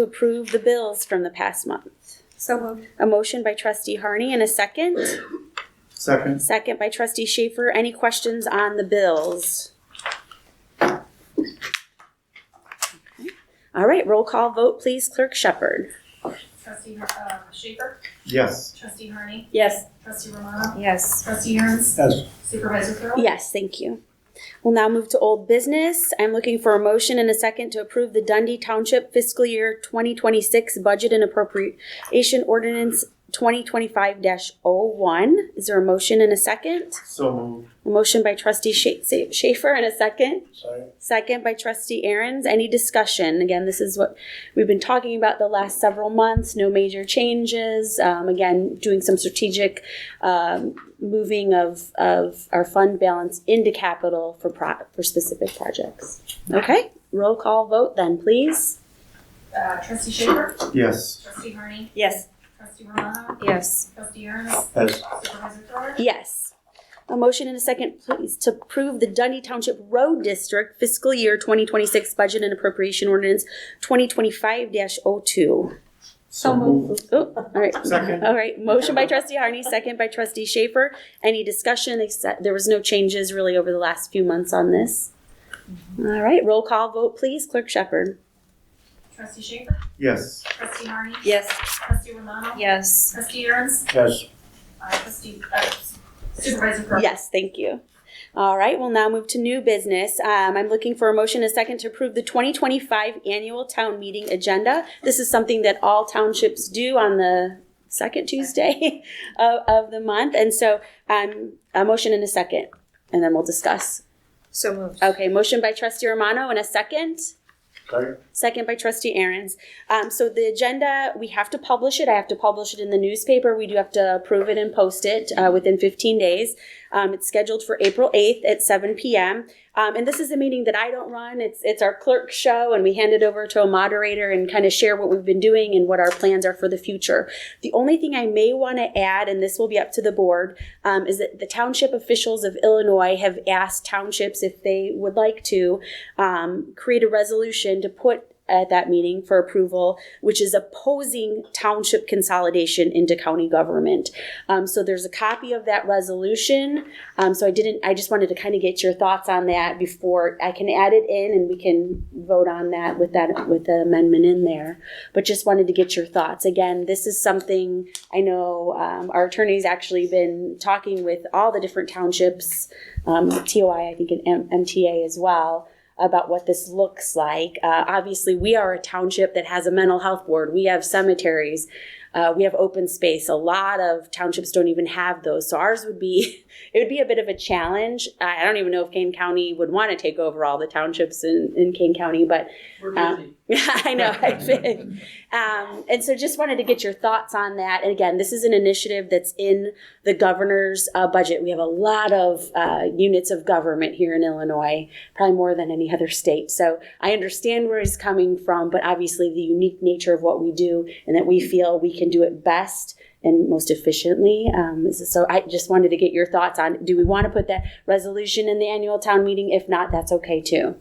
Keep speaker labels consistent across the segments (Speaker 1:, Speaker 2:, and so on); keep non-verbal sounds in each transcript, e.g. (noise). Speaker 1: to approve the bills from the past month.
Speaker 2: So moved.
Speaker 1: A motion by trustee Harney and a second.
Speaker 3: Second.
Speaker 1: Second by trustee Schaefer. Any questions on the bills? Okay. All right, roll call vote, please. Clerk Shepherd.
Speaker 4: Trustee uh, Schaefer?
Speaker 3: Yes.
Speaker 4: Trustee Harney?
Speaker 2: Yes.
Speaker 4: Trustee Romano?
Speaker 2: Yes.
Speaker 4: Trustee Aaron's?
Speaker 3: Yes.
Speaker 4: Supervisor Thurl?
Speaker 1: Yes, thank you. We'll now move to old business. I'm looking for a motion and a second to approve the Dundee Township fiscal year 2026 budget and appropriation ordinance 2025-01. Is there a motion and a second?
Speaker 3: So moved.
Speaker 1: A motion by trustee Sha- Sa- Schaefer and a second?
Speaker 3: Second.
Speaker 1: Second by trustee Aaron's. Any discussion? Again, this is what we've been talking about the last several months. No major changes. Um, again, doing some strategic um, moving of, of our fund balance into capital for pro- for specific projects. Okay, roll call vote then, please.
Speaker 4: Uh, Trustee Schaefer?
Speaker 3: Yes.
Speaker 4: Trustee Harney?
Speaker 1: Yes.
Speaker 4: Trustee Romano?
Speaker 2: Yes.
Speaker 4: Trustee Aaron's?
Speaker 3: Yes.
Speaker 4: Supervisor Thurl?
Speaker 1: Yes. A motion and a second, please, to approve the Dundee Township Road District fiscal year 2026 budget and appropriation ordinance 2025-02.
Speaker 2: So moved. Uh,
Speaker 1: Oh, all right.
Speaker 3: Second.
Speaker 1: All right, motion by trustee Harney, second by trustee Schaefer. Any discussion, except, there was no changes really over the last few months on this.
Speaker 2: Mm-hmm.
Speaker 1: All right, roll call vote, please, clerk Shepherd.
Speaker 4: Trustee Schaefer?
Speaker 3: Yes.
Speaker 4: Trustee Harney?
Speaker 2: Yes.
Speaker 4: Trustee Romano?
Speaker 2: Yes.
Speaker 4: Trustee Aaron's?
Speaker 3: Yes.
Speaker 4: Uh, Trustee, uh, Supervisor Thurl?
Speaker 1: Yes, thank you. All right, we'll now move to new business. Um, I'm looking for a motion, a second, to approve the 2025 annual town meeting agenda. This is something that all townships do on the second Tuesday (laughs) of, of the month. And so, um, a motion and a second, and then we'll discuss.
Speaker 2: So moved.
Speaker 1: Okay, motion by trustee Romano and a second,
Speaker 3: Second.
Speaker 1: second by trustee Aaron's. Um, so the agenda, we have to publish it. I have to publish it in the newspaper. We do have to approve it and post it uh, within 15 days. Um, it's scheduled for April 8th at 7 p.m. Um, and this is a meeting that I don't run. It's it's our clerk show, and we hand it over to a moderator and kind of share what we've been doing and what our plans are for the future. The only thing I may want to add, and this will be up to the board, um, is that the township officials of Illinois have asked townships if they would like to um, create a resolution to put at that meeting for approval, which is opposing township consolidation into county government. Um, so there's a copy of that resolution. Um, so I didn't, I just wanted to kind of get your thoughts on that before I can add it in and we can vote on that with that, with the amendment in there. But just wanted to get your thoughts. Again, this is something I know, um, our attorney's actually been talking with all the different townships, um, TOI, I think, and M- MTA as well about what this looks like. Uh, obviously, we are a township that has a mental health board. We have cemeteries. Uh, we have open space. A lot of townships don't even have those. So ours would be, (laughs) it would be a bit of a challenge. I I don't even know if Kane County would want to take over all the townships in, in Kane County, but
Speaker 5: We're
Speaker 1: Um,
Speaker 5: busy.
Speaker 1: yeah, (laughs) I know. I think. Um, and so just wanted to get your thoughts on that. And again, this is an initiative that's in the governor's uh, budget. We have a lot of uh, units of government here in Illinois, probably more than any other state. So I understand where he's coming from, but obviously the unique nature of what we do and that we feel we can do it best and most efficiently. Um, so I just wanted to get your thoughts on do we want to put that resolution in the annual town meeting? If not, that's okay too.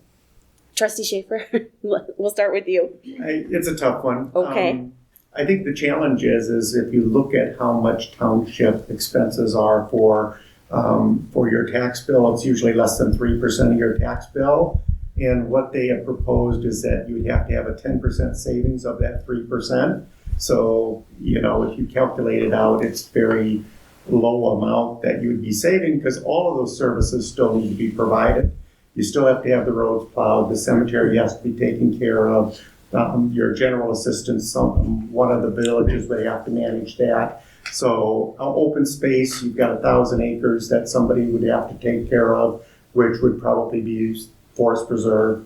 Speaker 1: Trustee Schaefer, (laughs) we'll start with you.
Speaker 3: I, it's a tough one.
Speaker 1: Okay.
Speaker 3: Um, I think the challenge is, is if you look at how much township expenses are for, um, for your tax bill, it's usually less than three percent of your tax bill. And what they have proposed is that you would have to have a ten percent savings of that three percent. So, you know, if you calculate it out, it's very low amount that you would be saving because all of those services still need to be provided. You still have to have the roads plowed, the cemetery has to be taken care of um, your general assistance, some, one of the villages, they have to manage that. So, uh, open space, you've got a thousand acres that somebody would have to take care of, which would probably be forest preserve.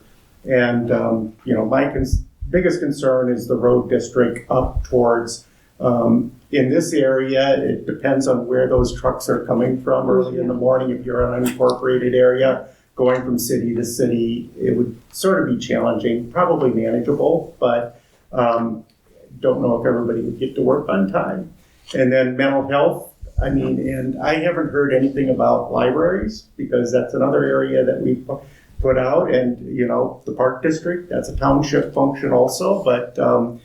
Speaker 3: And, um, you know, my cons- biggest concern is the road district up towards, um, in this area, it depends on where those trucks are coming from early in the morning, if you're in an unincorporated area going from city to city, it would sort of be challenging, probably manageable, but um, don't know if everybody would get to work on time. And then mental health, I mean, and I haven't heard anything about libraries because that's another area that we pu- put out. And, you know, the park district, that's a township function also, but um,